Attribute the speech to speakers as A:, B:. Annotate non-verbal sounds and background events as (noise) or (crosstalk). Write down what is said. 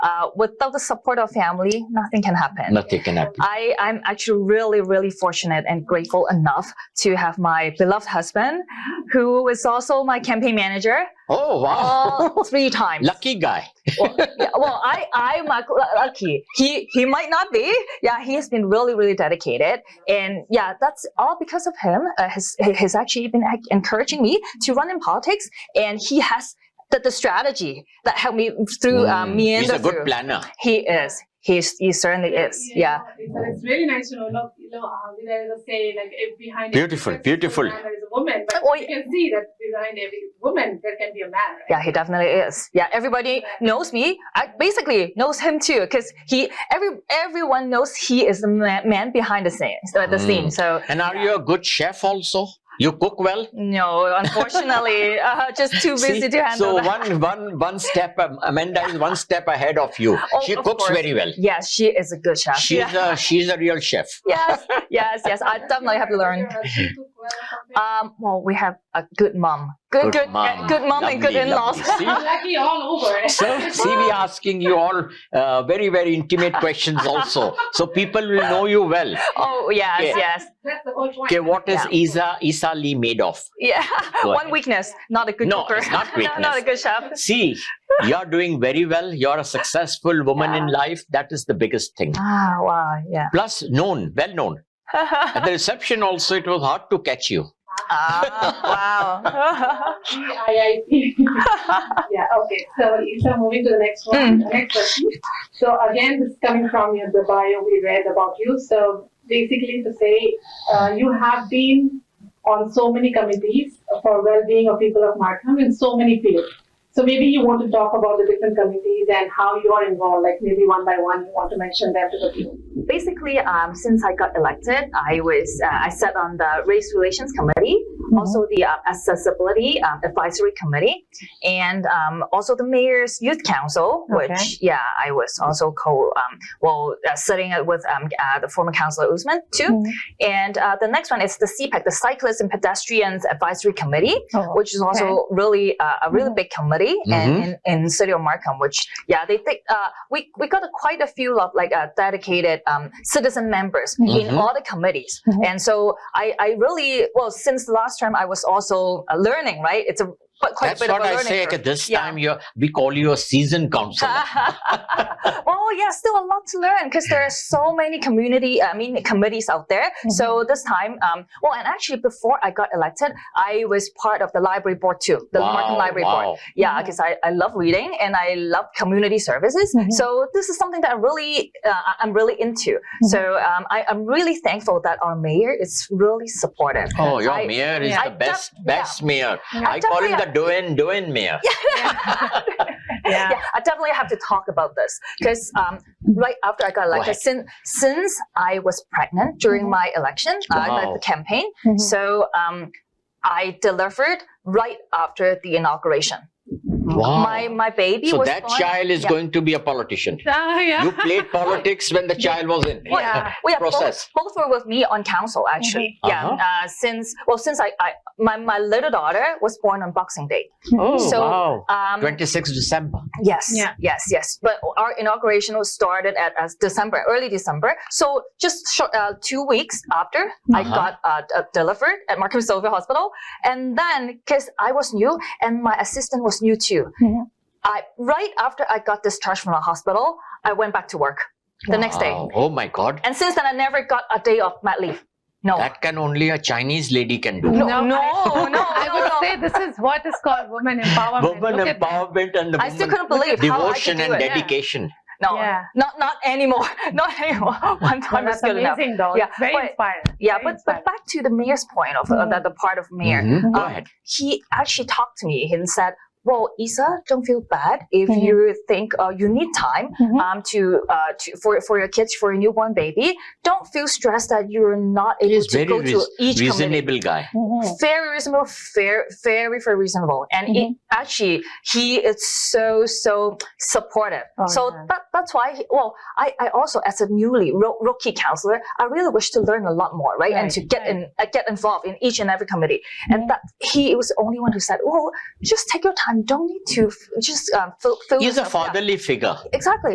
A: uh, without the support of family, nothing can happen.
B: Nothing can happen.
A: I, I'm actually really, really fortunate and grateful enough to have my beloved husband, who is also my campaign manager,
B: Oh wow.
A: all three times.
B: (laughs) Lucky guy.
A: Yeah, well, I, I'm uh, lu- lucky. He, he might not be. Yeah, he has been really, really dedicated, and yeah, that's all because of him. Uh, his, he's actually been ac- encouraging me to run in politics, and he has the, the strategy that helped me through uh,
B: Mm,
A: me and
B: He's a good
A: through.
B: planner.
A: He is. He's, he certainly is. Yeah.
C: It's, it's really nice to know. Look, you know, uh, there is a saying like if behind
B: Beautiful,
C: every
B: beautiful.
C: successful man there is a woman, but
A: Oh,
C: you can see that behind every woman there can be a man. Right?
A: Yeah, he definitely is. Yeah, everybody knows me. I basically knows him too, because he every everyone knows he is the man, man behind the scenes. Uh, the
B: Mm.
A: scene. So
B: And are you a good chef also? You cook well?
A: no, unfortunately, uh, just too busy
B: See,
A: to handle.
B: so
A: that.
B: one one one step um, Amanda is one step ahead of you.
A: Oh,
B: she
A: of
B: cooks
A: course.
B: very well.
A: yes, she is a good chef.
B: She's
A: Yeah.
B: a she's a real chef.
A: (laughs) yes, yes, yes. I definitely have to learn. Um, well, we have a good mom, good, good,
B: Good
A: good
B: mom.
A: mom, good mom and good
B: Lovely,
A: in-laws.
B: lovely. See?
C: Lucky all over.
B: So see, we are asking you all uh, very very intimate questions also. So people will know you well.
A: oh yes,
B: Okay.
A: yes,
C: That's the whole point.
B: Okay, what is
A: Yeah.
B: Isa Isa Lee made of?
A: yeah. (laughs)
B: Go
A: One
B: ahead.
A: weakness, not a good
B: No,
A: cooker.
B: it's not
A: No, (laughs) not a
B: weakness.
A: good chef.
B: See, you're doing very well. You're a successful woman in life. That is the biggest thing.
A: Ah, wow, yeah.
B: Plus, known, well known. At the reception also, it was hard to catch you.
A: Ah,
D: (laughs)
C: GIIP.
A: wow.
C: yeah, okay. So, Isa, moving to the next one,
D: Mm.
C: the next question. So, again, this is coming from your, the bio we read about you. So, basically, to say uh, you have been on so many committees for well-being of people of Markham in so many fields. So, maybe you want to talk about the different committees and how you are involved. Like maybe one by one, you want to mention them to the people.
A: (laughs) Basically, um, since I got elected, I was uh, I sat on the Race Relations Committee, also the uh, Accessibility um, Advisory Committee, and um, also the Mayor's Youth Council, which
D: Okay.
A: yeah, I was also co um, well uh, sitting with um, uh, the former Councillor Usman too.
D: Mhm.
A: And uh, the next one is the CPAC, the Cyclists and Pedestrians Advisory Committee.
D: Oh,
A: which is also really uh, a really big committee and
B: Mhm.
A: in, in city of Markham. Which yeah, they take uh, we we got a, quite a few of like uh, dedicated um, citizen members in
B: Mhm.
A: all the committees.
D: Mhm.
A: And so I I really well since last time I was also uh, learning right. It's a but quite
B: That's
A: a bit
B: what
A: of a
B: I
A: learning
B: say.
A: curve. (laughs)
B: that This
A: Yeah.
B: time, you we call you a seasoned counselor.
A: oh yeah, still a lot to learn because there are so many community, I mean, committees out there. So this time, um, well, and actually before I got elected, I was part of the library board too, (laughs) the
B: wow,
A: Markham Library Board.
B: wow.
A: Yeah,
D: Mhm.
A: because I, I love reading and I love community services.
B: Mm-hmm.
D: Mhm.
A: So this is something that I really uh, I- I'm really into.
B: Mm-hmm.
A: So um, I, I'm really thankful that our mayor is really supportive.
B: Oh, your
A: I-
B: mayor is
A: yeah.
B: the
A: I
B: best,
A: def-
B: best mayor. I, call him the Doen Doen mayor.
D: yeah.
A: yeah, I definitely have to talk about this because um,
B: Mm-hmm.
A: right after I got elected, since since I was pregnant during my election, uh, the-
B: Mm-hmm. Wow. Mm-hmm.
A: the campaign,
D: Mhm.
A: so um, I delivered right after the inauguration.
B: Wow.
A: My my baby
B: Oh. so
A: was
B: that
A: born.
B: child is
A: Yeah.
B: going to be a politician.
D: Ah, yeah.
B: You
A: (laughs)
B: played politics when the child was in.
A: Well,
D: Yeah.
A: well, yeah,
B: Process.
A: Both, both were with me on council actually.
B: Mhm.
A: Yeah,
B: Uh-huh.
A: uh, since well, since I, I my, my little daughter was born on Boxing Day.
B: Oh,
A: So,
B: wow.
A: Um,
B: 26 December.
A: Yes,
D: Yeah.
A: yes, yes. But our inauguration was started at as December, early December. So just short, uh, two weeks after I
B: Uh-huh.
A: got uh, d- uh, delivered at Markham Silver Hospital, and then because I was new and my assistant was new too,
B: Mm-hmm.
D: Mhm.
A: I right after I got discharged from the hospital, I went back to work the next day,
B: Wow. Oh my God.
A: and since then I never got a day off mat leave. No.
B: That can only a Chinese lady can do.
A: No,
D: No,
A: no,
D: I-
A: no,
D: (laughs) I
A: no,
D: would
A: no.
D: say this is what is called woman empowerment.
B: Woman
D: Look at that.
B: empowerment and the
A: I still
B: woman
A: couldn't believe how I could
B: devotion
A: do
B: and
A: it.
B: dedication.
A: No,
D: Yeah.
A: not not anymore. (laughs) Not anymore. One
D: Well,
A: time is
D: that's
A: good enough.
D: amazing, though.
A: Yeah,
D: It's very
A: but-
D: inspiring.
A: Yeah,
D: Very
A: but, but
D: inspiring.
A: back to the mayor's point of uh,
D: Mhm.
A: the, the part of mayor.
B: Mhm. Go
A: Um,
B: ahead.
A: He actually talked to me and said, "Well, Isa, don't feel bad if
D: Mhm.
A: you think uh, you need time
D: Mhm.
A: um, to, uh, to for for your kids for your newborn baby. Don't feel stressed that you're not able
B: is
A: to
B: very
A: go to
B: reas-
A: each committee."
B: Reasonable guy.
A: Mm-hmm.
D: Mhm.
A: Very reasonable, fair, very, very reasonable, and it-
D: Mm-hmm.
A: actually he is so so supportive.
D: Oh,
A: so
D: yeah.
A: that, that's why. He, well, I, I also as a newly ro- rookie counselor, I really wish to learn a lot more, right? and
D: Right,
A: to get
D: right.
A: in uh, get involved in each and every committee.
D: Mhm.
A: And that he was the only one who said, "Oh, "Well, just take your time. Don't need to f- just um, fill, fill
B: He's a
A: yourself up."
B: fatherly figure.
A: Exactly.